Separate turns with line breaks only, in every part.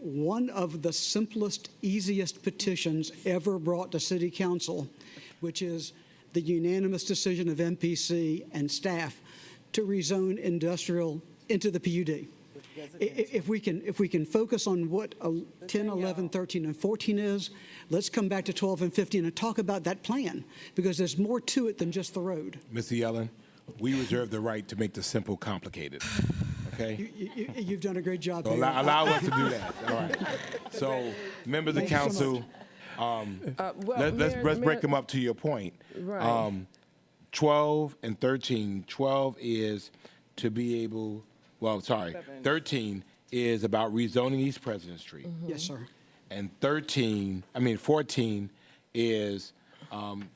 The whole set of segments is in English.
one of the simplest, easiest petitions ever brought to city council, which is the unanimous decision of MPC and staff to rezone industrial into the PUD. I- i- If we can, if we can focus on what uh, 10, 11, 13, and 14 is, let's come back to 12 and 15 and talk about that plan, because there's more to it than just the road.
Mr. Yellen, E. we reserve the right to make the simple complicated, okay?
You- you- You've done a great job.
So
Mayor.
allow, allow us to do that, all right? So, members of
Thank you so
council,
Uh, well,
let- let's,
Mayor-
let's break
Mayor-
them up to your point.
Right.
Um, 12 and 13, 12 is to be able, well, sorry, 13 is about rezoning East President Street.
Mm-hmm.
Yes, sir.
And 13, I mean 14 is um,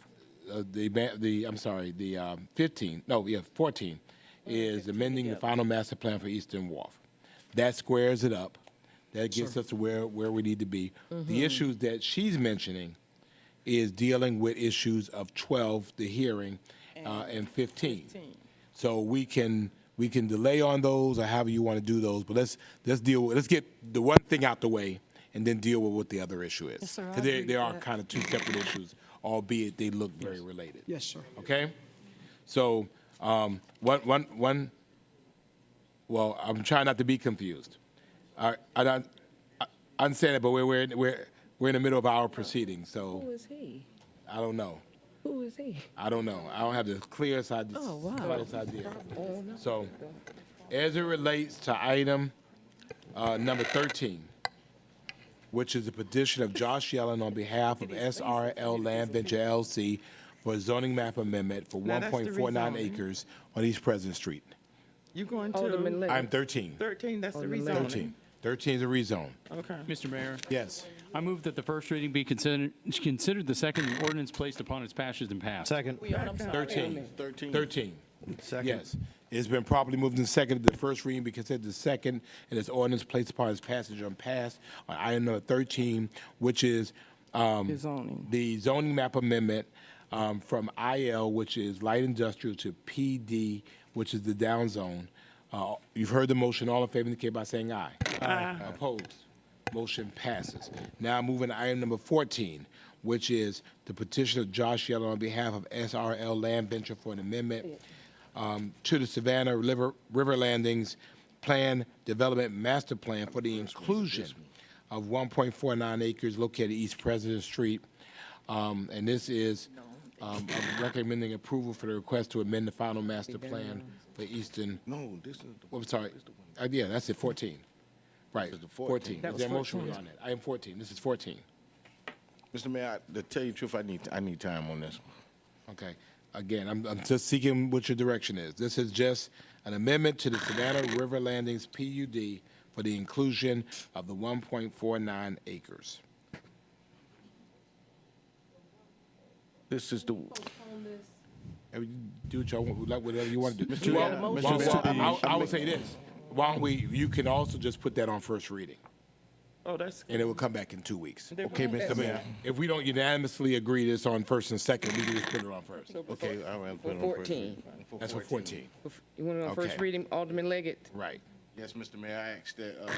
uh, the, ma- the, I'm sorry, the um, 15, no, yeah, 14 is amending the final master plan for Eastern Wharf. That squares it up. That gets us to where, where we need to be.
Mm-hmm.
The issues that she's mentioning is dealing with issues of 12, the hearing, uh, and 15. So we can, we can delay on those or however you want to do those, but let's, let's deal, with let's get the one thing out the way and then deal with what the other issue is.
Yes, sir, I
Because they,
agree
they
with
are
that.
kind of two separate issues, albeit they look very related.
Yes, sir.
Okay? So, um, one, one, one, well, I'm trying not to be confused. I, I, don't- I I understand it, but we're, we're, we're, we're in the middle of our proceedings,
Who
so
is he?
I don't know.
Who is he?
I don't know. I don't have the clearest idea.
Oh, wow.
clearest idea. So, as it relates to item uh, number 13, which is a petition of Josh Yellen on behalf of SRL Land Venture LLC for a zoning map amendment for
Now, that's the
1.49
rezoning.
acres on East President Street.
You're going
Alderman
to
Lake.
I'm 13.
13, that's the
Alderman
rezoning.
Lake.
13. 13 is a rezone.
Okay.
Mr. Mayor,
Yes.
I move that the first reading be considered, considered the second and ordinance placed upon its passage and passed.
Second,
13.
13.
13.
second.
Yes. It's been properly moved and seconded. The first reading be considered the second, and this ordinance placed upon its passage on pass on item number 13, which is um,
The zoning.
the zoning map amendment um, from IL, which is light industrial, to PD, which is the down zone. Uh, You've heard the motion. All in favor indicate by saying aye. Aye. Opposed? Motion passes. Now moving to item number 14, which is the petition of Josh Yeller on behalf of SRL Land Venture for an amendment um, to the Savannah River, River Landings Plan Development Master Plan for the inclusion of 1.49 acres located East President Street. Um, and this is, um, I'm recommending approval for the request to amend the final master plan for Eastern,
No, this is the
oh, I'm sorry, Uh, yeah, that's it, 14. Right, 14.
That
Is there a
was
motion
14.
on it? I am 14, this is 14.
Mr. Mayor, I- to tell you the truth, I need, I need time on this.
Okay. Again, I'm, I'm just seeking what your direction is. This is just an amendment to the Savannah River Landings PUD for the inclusion of the 1.49 acres.
This is the,
And we Do what y'all want, like whatever you want to do.
Mr.
Well,
Mayor,
well,
Mr.
well,
Mayor,
I- I would say this. Why don't we, you can also just put that on first reading,
Oh, that's.
and it will come back in two weeks.
okay, Mr. Mayor.
If we don't unanimously agree this on first and second, we can just put it on first.
Okay, all right. put it on first
14.
reading.
That's for 14,
You want to first
Okay.
read him, Alderman Leggett?
right.
Yes, Mr. Mayor, I asked that, uh,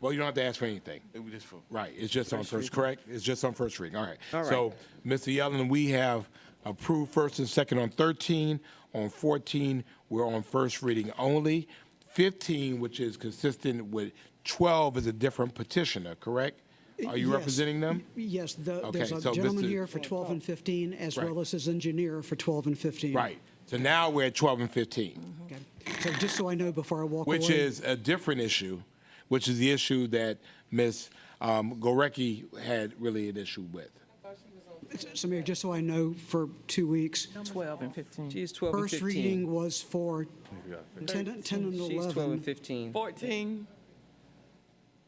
Well, you don't have to ask for anything.
it was just for.
Right, it's just on first, correct? It's just on first reading, all right.
All right.
So, Mr. Yellen, we have approved first and second on 13. On 14, we're on first reading only. 15, which is consistent with 12, is a different petitioner, correct? Are you
Yes.
representing them?
Yes, the-
Okay,
there's a
so this
gentleman
is-
here for 12 and 15, as
Right.
well as his engineer for 12 and 15.
Right, so now we're at 12 and 15.
Okay. So just so I know before I walk away.
which is a different issue, which is the issue that Ms. um, Gorecki had really an issue with.
So Mayor, just so I know for two weeks,
12 and 15.
She's 12 and
first
15.
reading was for 10 and 10 and
She's 12 and
11,
15.
14,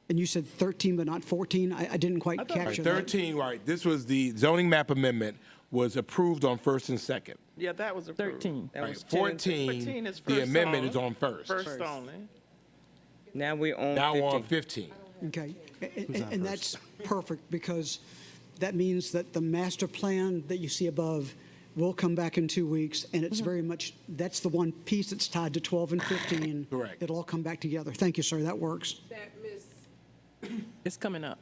and you said 13 but not 14? I I didn't quite
thought-
capture that.
13, right, this was the zoning map amendment was approved on first and second.
yeah, that was approved.
13.
That
Right,
was 10 and
14
fourteen,
is first
the amendment
only.
is on first.
First only.
Now we're on
Now
15.
we're on fifteen.
Okay, A- a- and that's perfect, because that means that the master plan that you see above will come back in two weeks, and it's very much, that's the one piece that's tied to 12 and 15.
Correct.
It'll all come back together. Thank you, sir, that works.
that Ms.
It's coming up.